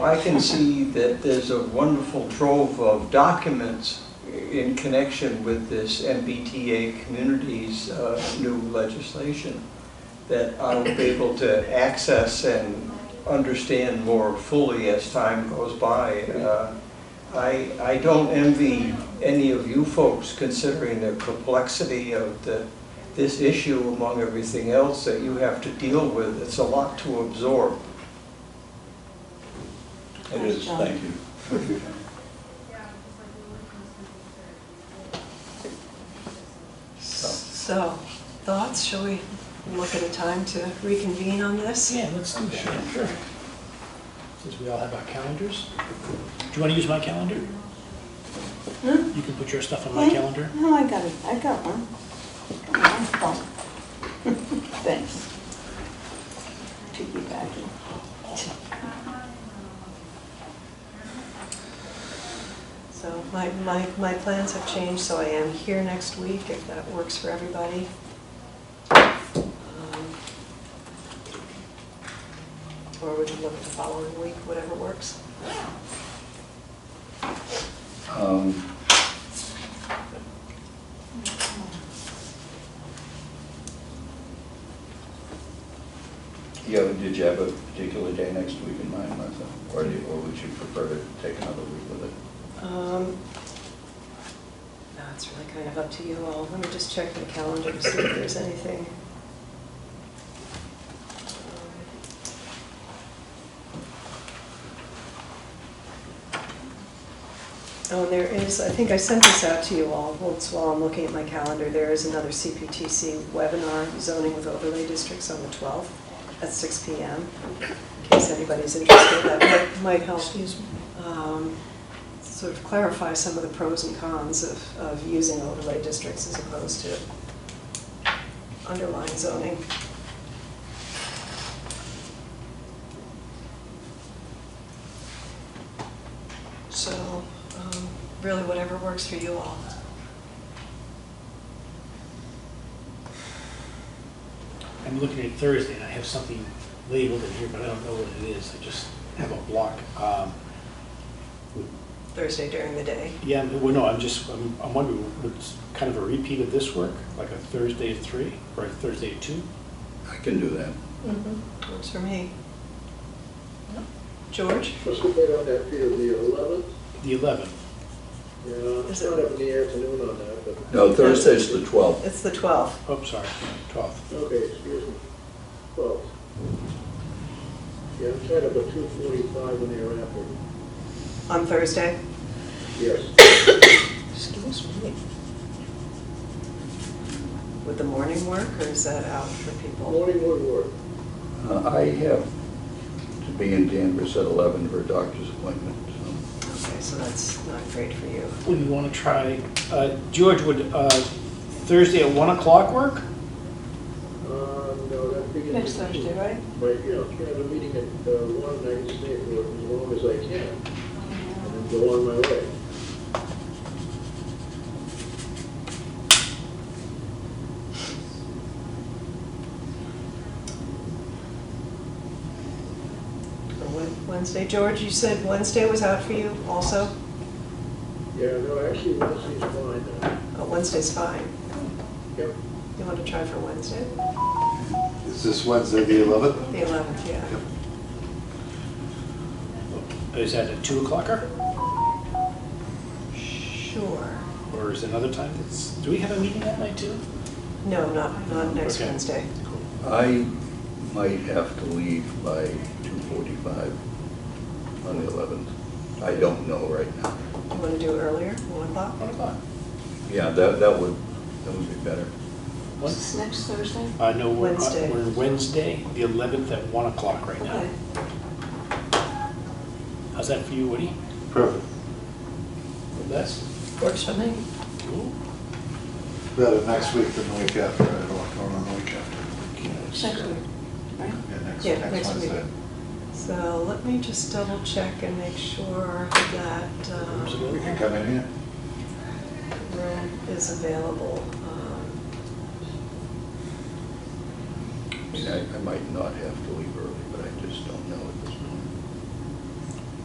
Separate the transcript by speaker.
Speaker 1: I can see that there's a wonderful trove of documents in connection with this MBTA community's uh, new legislation that I'll be able to access and understand more fully as time goes by. Uh, I, I don't envy any of you folks considering the complexity of the, this issue among everything else that you have to deal with. It's a lot to absorb.
Speaker 2: It is, thank you.
Speaker 3: So, thoughts, shall we look at a time to reconvene on this?
Speaker 4: Yeah, let's do that. Sure. Since we all have our calendars. Do you want to use my calendar?
Speaker 2: Hmm?
Speaker 4: You can put your stuff on my
Speaker 2: Hmm?
Speaker 4: calendar.
Speaker 2: No, I got it, I got one. Got my phone. Thanks. Piggybacking.
Speaker 3: So my, my, my plans have changed, so I am here next week if that works for everybody. Um, Or we can look at the following week, whatever works.
Speaker 2: Um,
Speaker 5: Yeah, but did you have a particular day next week in mind, Martha? Or do, or would you prefer to take another week with it?
Speaker 3: Um, No, it's really kind of up to you all. Let me just check my calendar to see if there's anything. Oh, there is, I think I sent this out to you all, once while I'm looking at my calendar, there is another CPTC webinar, zoning with overlay districts on the 12th at 6 PM, in case anybody's interested, that might- might help. um, Sort of clarify some of the pros and cons of, of using overlay districts as opposed to underlying zoning. So, um, really whatever works for you all.
Speaker 4: I'm looking at Thursday, and I have something labeled in here, but I don't know what it is. I just have a block. Um,
Speaker 3: Thursday during the day.
Speaker 4: Yeah, well, no, I'm just, I'm I'm wondering, would it's kind of a repeat of this work, like a Thursday at three, or a Thursday at two?
Speaker 5: I can do that.
Speaker 3: Works for me. George?
Speaker 6: Let's go put on that Peter Lee eleventh.
Speaker 4: The 11th.
Speaker 6: Yeah,
Speaker 3: Is
Speaker 6: it's
Speaker 3: it-
Speaker 6: not up in the afternoon on that, but,
Speaker 5: No, Thursday's the 12th.
Speaker 3: It's the 12th.
Speaker 4: Oh, sorry, 12th.
Speaker 6: okay, excuse me, twelve. Yeah, I'm set up at two forty-five in the afternoon.
Speaker 3: On Thursday?
Speaker 6: Yes,
Speaker 3: Excuse me. Would the morning work, or is that out for people?
Speaker 6: morning would work.
Speaker 5: Uh, I have to be in Danvers at 11 for a doctor's appointment, so.
Speaker 3: Okay, so that's not great for you.
Speaker 4: Would you want to try, uh, George, would uh, Thursday at 1 o'clock work?
Speaker 6: Uh, no, that begins.
Speaker 3: Next Thursday, right?
Speaker 6: But, you know, if you have a meeting at uh, one, I can stay for as long as I can, and then go on my way.
Speaker 3: Or Wed- Wednesday, George, you said Wednesday was out for you also?
Speaker 6: Yeah, no, actually, Wednesday's fine, uh,
Speaker 3: Oh, Wednesday's fine.
Speaker 6: yep.
Speaker 3: You want to try for Wednesday?
Speaker 7: Is this Wednesday, the 11th?
Speaker 3: The 11th, yeah.
Speaker 4: Oh, Is that a 2 o'clocker?
Speaker 3: Sure.
Speaker 4: Or is it another time that's, do we have a meeting that night too?
Speaker 3: No, not, not next
Speaker 4: Okay.
Speaker 3: Wednesday.
Speaker 5: I might have to leave by 2:45 on the 11th. I don't know right now.
Speaker 3: You want to do earlier, 1 o'clock?
Speaker 4: One o'clock.
Speaker 5: Yeah, that, that would, that would be better.
Speaker 4: One?
Speaker 2: Is this next Thursday?
Speaker 4: Uh, no, we're,
Speaker 3: Wednesday.
Speaker 4: uh, we're Wednesday, the 11th at 1 o'clock right now.
Speaker 3: Okay.
Speaker 4: How's that for you, Woody?
Speaker 7: Perfect.
Speaker 4: That's,
Speaker 3: Works for me.
Speaker 4: cool.
Speaker 7: Better next week than the week after. I have a lot going on the week after.
Speaker 2: Next week, right?
Speaker 7: Yeah, next,
Speaker 3: Yeah,
Speaker 7: next
Speaker 3: next week.
Speaker 7: Wednesday.
Speaker 3: So let me just double check and make sure that
Speaker 4: Rooms
Speaker 3: um,
Speaker 7: We can
Speaker 4: available?
Speaker 7: come in here.
Speaker 3: room is available. Um,
Speaker 5: I mean, I, I might not have to leave early, but I just don't know at this